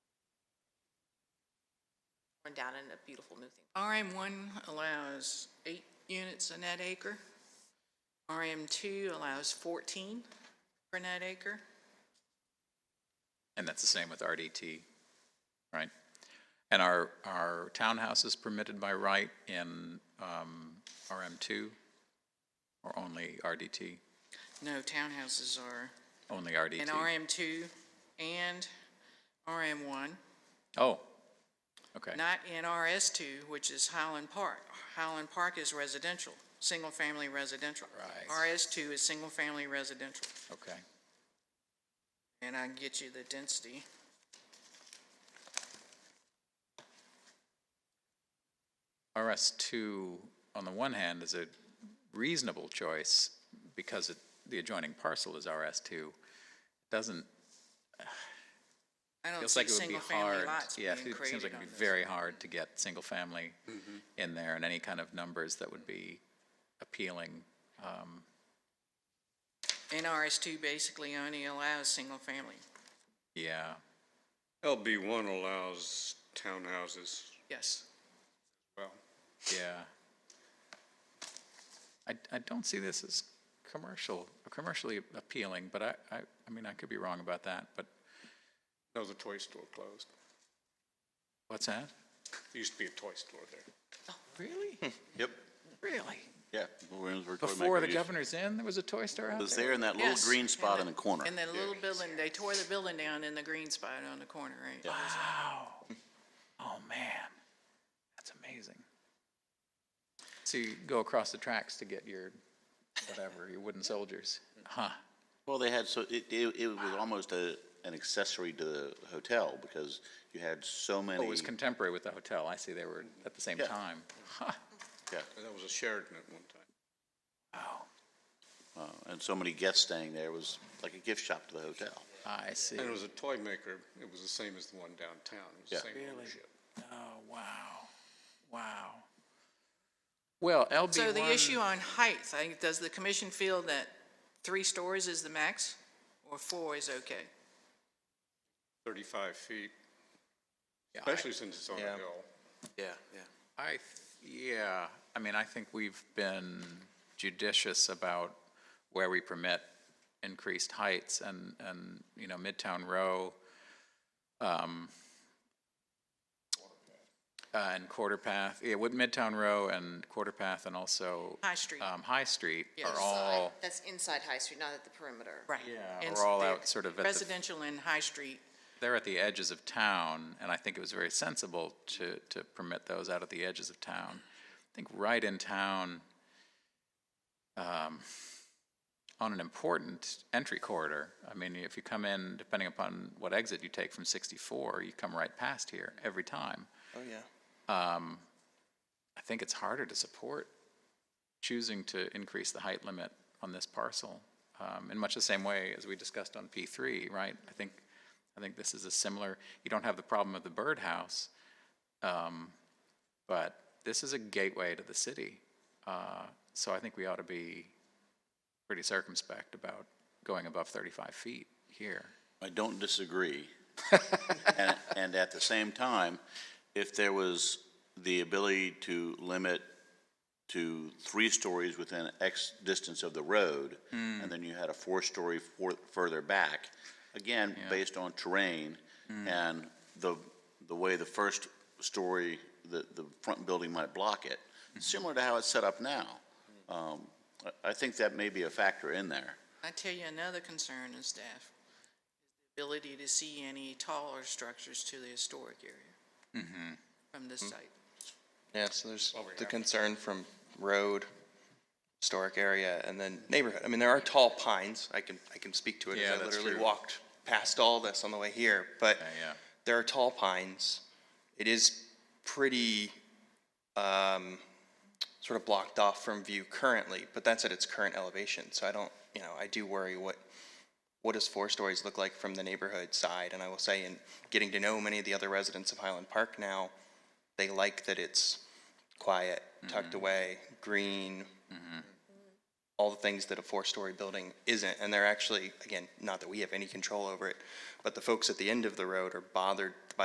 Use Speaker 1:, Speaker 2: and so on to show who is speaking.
Speaker 1: torn down and a beautiful new thing.
Speaker 2: RM one allows eight units a net acre. RM two allows fourteen per net acre.
Speaker 3: And that's the same with RDT, right? And our, our townhouse is permitted by right in um, RM2 or only RDT?
Speaker 2: No, townhouses are
Speaker 3: Only RDT?
Speaker 2: in RM two and RM one,
Speaker 3: Oh, okay.
Speaker 2: not in RS two, which is Highland Park. Highland Park is residential, single-family residential.
Speaker 3: Right.
Speaker 2: RS two is single-family residential,
Speaker 3: Okay.
Speaker 2: and I can get you the density.
Speaker 3: RS2, on the one hand, is a reasonable choice because it, the adjoining parcel is RS2. Doesn't,
Speaker 2: I don't
Speaker 3: feels
Speaker 2: see
Speaker 3: like it would be
Speaker 2: single-family
Speaker 3: hard.
Speaker 2: lots being
Speaker 3: Yeah,
Speaker 2: created
Speaker 3: it
Speaker 2: on this.
Speaker 3: seems like it'd be very hard to get single-family in there and any kind of numbers that would be appealing. um,
Speaker 2: NRS two basically only allows single-family,
Speaker 3: Yeah,
Speaker 4: LB one allows townhouses,
Speaker 2: yes.
Speaker 4: well,
Speaker 3: yeah. I, I don't see this as commercial, commercially appealing, but I, I, I mean, I could be wrong about that, but
Speaker 4: no, the toy store closed.
Speaker 3: what's that?
Speaker 4: There used to be a toy store there.
Speaker 3: Really?
Speaker 5: Yep,
Speaker 3: Really?
Speaker 5: yeah. Williamsburg Toy
Speaker 3: Before the
Speaker 5: Maker used-
Speaker 3: governor's inn, there was a toy store out there?
Speaker 5: Was there in that little
Speaker 2: Yes,
Speaker 5: green spot
Speaker 2: and
Speaker 5: in the corner.
Speaker 2: And the little building, they tore the building down in the green spot on the corner, right?
Speaker 3: Wow. Oh, man. That's amazing. So you go across the tracks to get your, whatever, your wooden soldiers. Huh.
Speaker 5: Well, they had, so it, it, it was almost a, an accessory to the hotel because you had so many.
Speaker 3: Oh, it was contemporary with the hotel. I see they were at the same
Speaker 5: Yeah.
Speaker 3: time. Huh.
Speaker 5: Yeah,
Speaker 4: That was a Sheridan at one time.
Speaker 3: Wow.
Speaker 5: uh, and so many guests staying there. It was like a gift shop to the hotel.
Speaker 3: I see.
Speaker 4: And it was a toy maker, it was the same as the one downtown, it was the
Speaker 5: Yeah.
Speaker 4: same ownership.
Speaker 3: Oh, wow. Wow. Well, LB1.
Speaker 2: So the issue on height, I think, does the commission feel that three stories is the max? Or four is okay?
Speaker 4: Thirty-five feet,
Speaker 3: Yeah, I-
Speaker 4: especially since it's on a
Speaker 5: Yeah.
Speaker 4: hill.
Speaker 5: Yeah, yeah.
Speaker 3: I, th- yeah, I mean, I think we've been judicious about where we permit increased heights and, and, you know, Midtown Row, um, uh, and Quarter Path, yeah, with Midtown Row and Quarter Path and also,
Speaker 2: High Street,
Speaker 3: um, High Street
Speaker 2: Yes.
Speaker 3: are all,
Speaker 1: That's inside High Street, not at the perimeter.
Speaker 2: right.
Speaker 3: yeah,
Speaker 2: And
Speaker 3: are all
Speaker 2: they're
Speaker 3: out sort of at the
Speaker 2: Residential and High Street,
Speaker 3: they're at the edges of town, and I think it was very sensible to, to permit those out at the edges of town. I think right in town, um, on an important entry corridor, I mean, if you come in, depending upon what exit you take from sixty-four, you come right past here every time.
Speaker 5: Oh, yeah.
Speaker 3: Um, I think it's harder to support choosing to increase the height limit on this parcel, um, in much the same way as we discussed on P three, right? I think, I think this is a similar, you don't have the problem of the birdhouse, um, but this is a gateway to the city. Uh, so I think we ought to be pretty circumspect about going above thirty-five feet here.
Speaker 5: I don't disagree. And, and at the same time, if there was the ability to limit to three stories within X distance of the road, and then you had a four-story for, further back, again, based on terrain and the, the way the first story, the, the front building might block it, similar to how it's set up now. Um, I, I think that may be a factor in there.
Speaker 2: I tell you another concern in staff, is the ability to see any taller structures to the historic area.
Speaker 3: Mm-hmm.
Speaker 2: From this site.
Speaker 6: Yeah, so there's the concern from road, historic area, and then neighborhood. I mean, there are tall pines. I can, I can speak to it. as
Speaker 3: Yeah,
Speaker 6: I
Speaker 3: that's
Speaker 6: literally
Speaker 3: true.
Speaker 6: walked past all this on the way here, but
Speaker 3: yeah.
Speaker 6: there are tall pines. It is pretty, um, sort of blocked off from view currently, but that's at its current elevation. So I don't, you know, I do worry what, what does four stories look like from the neighborhood side? And I will say, in getting to know many of the other residents of Highland Park now, they like that it's quiet, tucked away, green, all the things that a four-story building isn't. And they're actually, again, not that we have any control over it, but the folks at the end of the road are bothered by